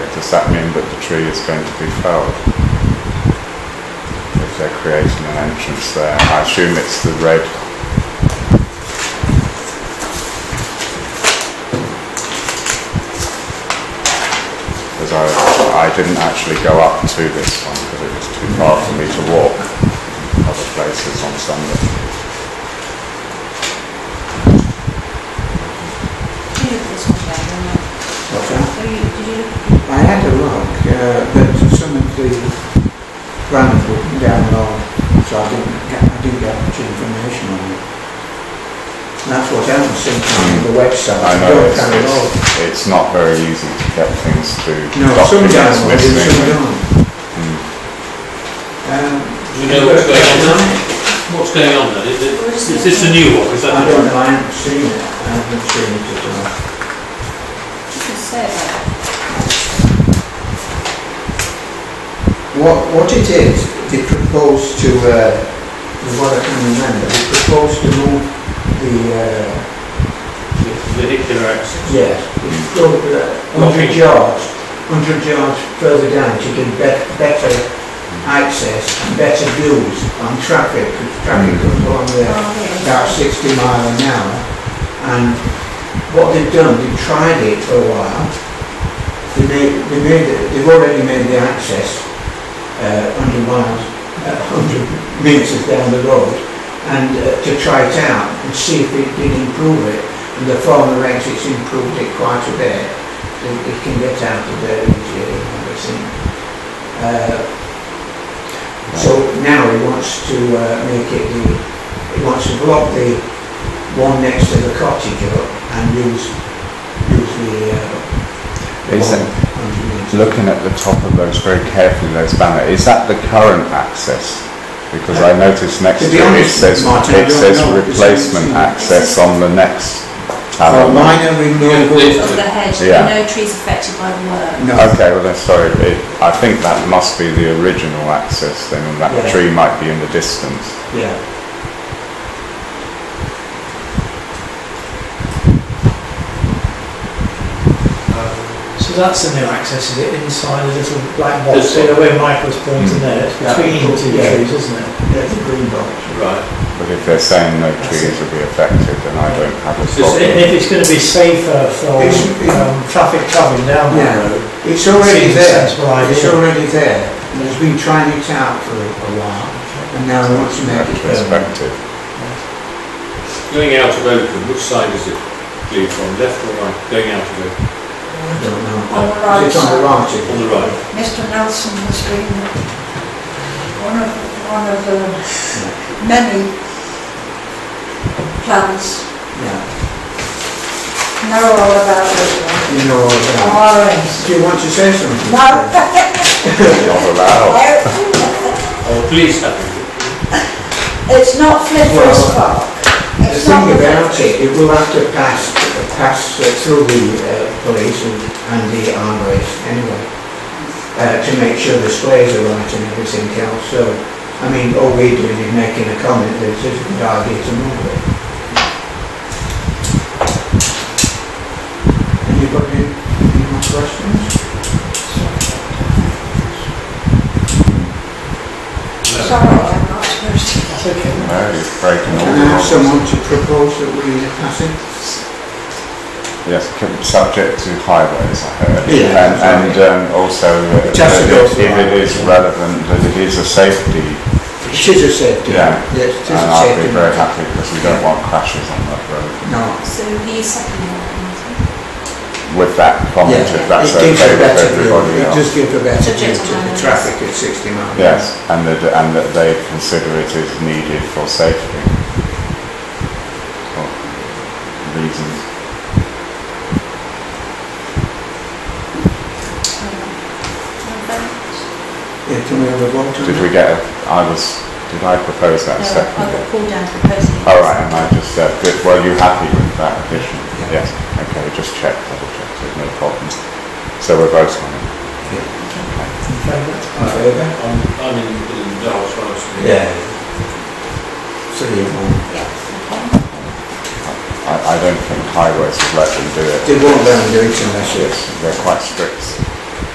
does that mean that the tree is going to be felled? If they're creating an entrance there, I assume it's the red. Because I, I didn't actually go up to this one because it was too far for me to walk other places on Sunday. Did you look at this one, Dave, or not? What's that? Have you- Did you look? I had a look, uh, but some of the grounds were down low, so I didn't get, I didn't get much information on it. And That's what Alan sent me on the website. Hmm. I know Don't it's, come it's, along. it's not very easy to get things to No, some down, documents low, and missing. Hmm. some down. Mm. Um, Do you know what's going on now? What's going on then? Is, it, is this a new one? Is that I don't know, I haven't seen it, I haven't seen it at all. You can say that. What, what it is, they propose to, uh, from what I can remember, they propose to move the, uh, vehicular access? yeah, it's still, uh, hundred Locking. yards, hundred yards further down to give bet- better access, and better views on traffic, because traffic Mm. comes along there Oh, yeah. about sixty mile an hour. And what they've done, they've tried it for a while. They made, they made, they've already made the access, uh, hundred miles, uh, hundred metres down the road. And uh, to try it out and see if it did improve it. And the former exits improved it quite a bit. It, it can get out of there easier and everything. Uh, so now he wants to uh, make it the, he wants to block the one next to the cottage up and use, use the, uh, Is one it- hundred metres. Looking at the top of those very carefully, those banner, is that the current access? Because I noticed next to To be it, it honest, says, Martin, I it don't says know, because I haven't replacement seen it. access on the next For panel. minor removal, Yeah, Of the hedge, Yeah. no trees affected by the work. no. Okay, well then, sorry, it, I think that must be the original access then, and that Yeah. tree might be in the distance. Yeah. Uh, So that's the new access, is it, inside a little black box, so the way Michael's pointing there, it's Hmm. Yeah. between the two Yeah. trees, isn't it? There's a green box. Right. But if they're saying no That's trees it. will be affected, then I don't have a So problem. if if it's gonna be safer for, It's- it- um, traffic travelling down that Yeah. road, It's already Seems there, sensible idea. it's already there, and it's been trying it out for a while, and now he wants to make it permanent. Perspective. Going out of Oakham, which side is it? Leave from left or right? Going out of Oakham, I don't On know. the right It's on the right, on is the it? right. Mr. Nelson was doing it. one of, one of the many plans. Yeah, Know all about this one. you know all that. Orange. Do you want to say something? No. Not allowed. Oh, please have it. It's not Flinders Well, Park. The It's not thing about it, it will have to pass, pass uh, through the uh, police and and the armories anyway, uh, to make sure the squares are right and everything else, so, I mean, all we're doing is making a comment that it's a good idea to move it. Anybody, any more questions? Sorry, I'm not supposed that's okay. No, it's breaking all Can the I have rules. someone to propose that we pass it? Yes, com- subject to highways, I heard. Yeah, And, that's right. and um, also, uh, It has to that go if through if it is highways. relevant, that it is a safety, It is a safety. Yeah. Yes, it is and a I'd safety. be very happy because we don't want crashes on that road. No. So he seconded that, With that comment, Yeah, if that's it gives okay a with better view. everybody It else. just gives a better Subject view to the lines. traffic at 60 miles. Yes, and that, and that they consider it is needed for safety. For Reasons. Yeah, can we have a vote on Did that? we get, a- I was, did I propose that No, I seconded? got called Uh, down to propose it. All right, and I just said, good, were you happy with that addition? Yeah. Yes, okay, we just checked, double checked, there's no problems. So we're voting on it. In favour? In favour? I'm, I'm in, in the dark side. Yeah. Three of one. Yeah, okay. I, I don't think highways would let them do it. They won't let them do it unless it's, Yes, they're quite strict.